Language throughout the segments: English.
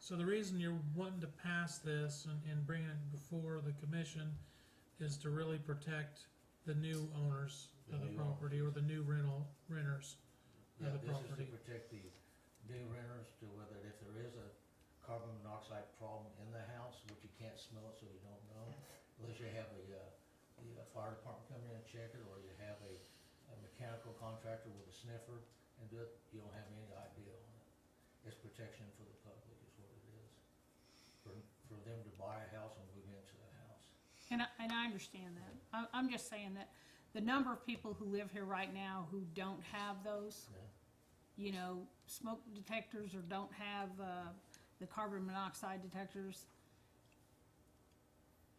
So the reason you're wanting to pass this and, and bringing it before the commission is to really protect the new owners of The the new property or the new rental, renters. Yeah, of the this is to property. protect the new renters to whether, if there is a carbon monoxide problem in the house, which you can't smell it, so you don't know, unless you have a, uh, the uh, fire department come in and check it, or you have a, a mechanical contractor with a sniffer and do it, you don't have any idea on it. It's protection for the public is what it is, for, for them to buy a house and move into the house. And I, and I understand that. I, I'm just saying that the number of people who live here right now who don't have those, Yeah. you know, smoke detectors or don't have, uh, the carbon monoxide detectors.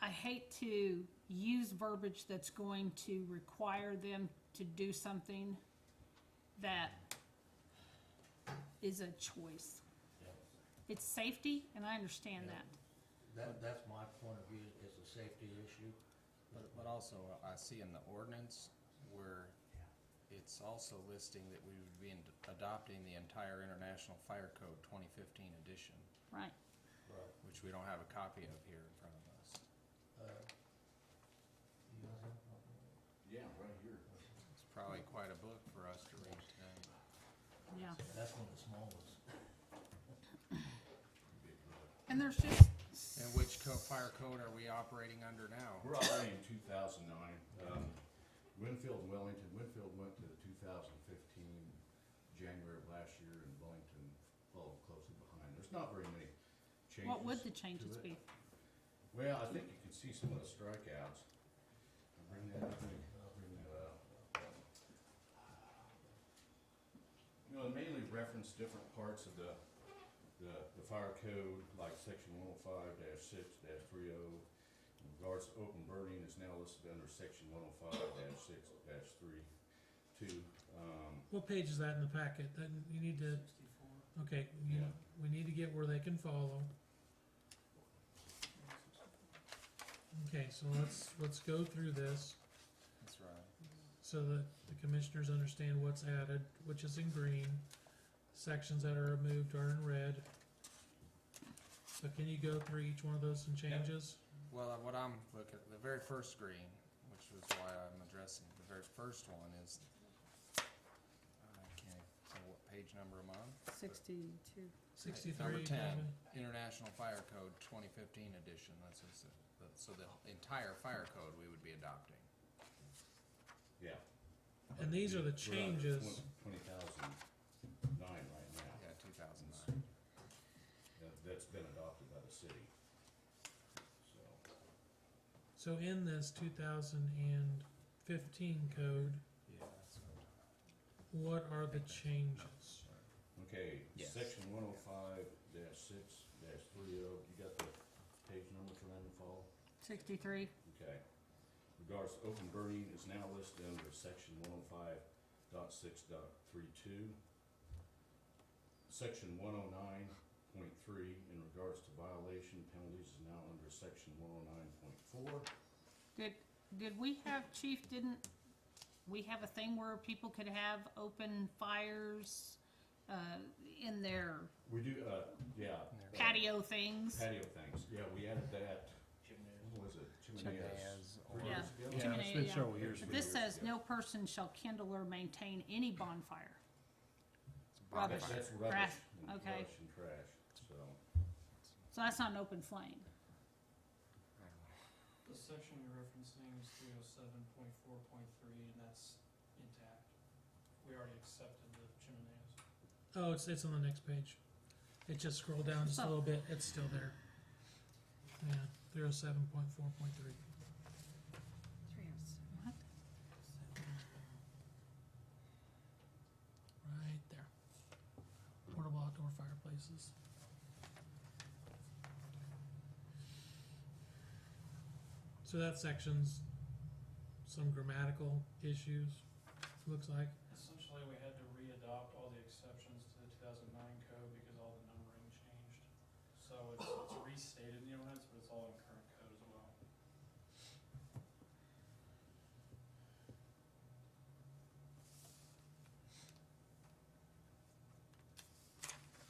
I hate to use verbiage that's going to require them to do something that is a choice. Yeah. It's safety, and I understand Yeah. that. That, that's my point of view, is a safety issue. But, but also, uh, I see in the ordinance where it's also listing that we would be in- adopting the entire International Fire Code twenty fifteen edition, Right. Right. which we don't have a copy of here in front of us. Uh, you guys have a problem with it? Yeah, right here. It's probably quite a book for us to read tonight. Yeah. That's one of the smallest. And there's just And which co- fire code are we operating under now? We're already in two thousand nine. Um, Winfield, and Wellington, Winfield went to the two thousand fifteen, January of last year, and Wellington followed closely behind. There's not very many changes. What would the to changes be? it. Well, I think you can see some of the strikeouts. I'll Bring that, up, I'll bring that up. You know, it mainly reference different parts of the, the, the fire code, like section one oh five six three oh. In regards to open burning is now listed under section one oh five six three two, um, What page is that in the packet? That you need to, okay, you, Yeah. we need to get where they can follow. Okay, so let's, let's go through this That's right. so that the commissioners understand what's added, which is in green. Sections that are removed are in red. So can you go through each one of those and changes? Well, uh, what I'm looking, at the very first green, which was why I'm addressing, the very first one is, I can't tell what page number I'm on. sixty-two. Sixty-three, Number ten, Kevin. International Fire Code twenty fifteen edition, that's what's, the- so the entire fire code we would be adopting. yeah. And these are the changes. Twenty thousand nine right now. Yeah, two thousand nine. That, that's been adopted by the city. So. So in this two thousand and fifteen code, Yeah, that's what I'm talking about. what are the changes? Okay, Yes. section one oh five dash six dash three oh, you got the page number for that to follow? Sixty-three. Okay. Regards to open burning is now listed under section one oh five dot six dot three two. Section one oh nine point three in regards to violation penalties is now under section one oh nine point four. Did, did we have, chief, didn't, we have a thing where people could have open fires, uh, in their We do, uh, yeah. patio things? Patio things, yeah, we added that, what was it, chimeneas? Chimeneas three or- years ago? Yeah, it's been several years. But this says, no person shall kindle or maintain any bonfire. Rubbish. That's- Trash, That's rubbish. and okay. Rubbish and trash, so, So that's not an open flame. The section you're referencing is three oh seven point four point three, and that's intact. We already accepted the chimeneas. Oh, it's, it's on the next page. It just scrolled down just a little bit, it's still there. Yeah, three oh seven point four point three. What? Right there. Portable outdoor fireplaces. So that section's some grammatical issues, looks like. Essentially, we had to re-adopt all the exceptions to the two thousand nine code because all the numbering changed. So it's, it's restated in the ordinance, but it's all in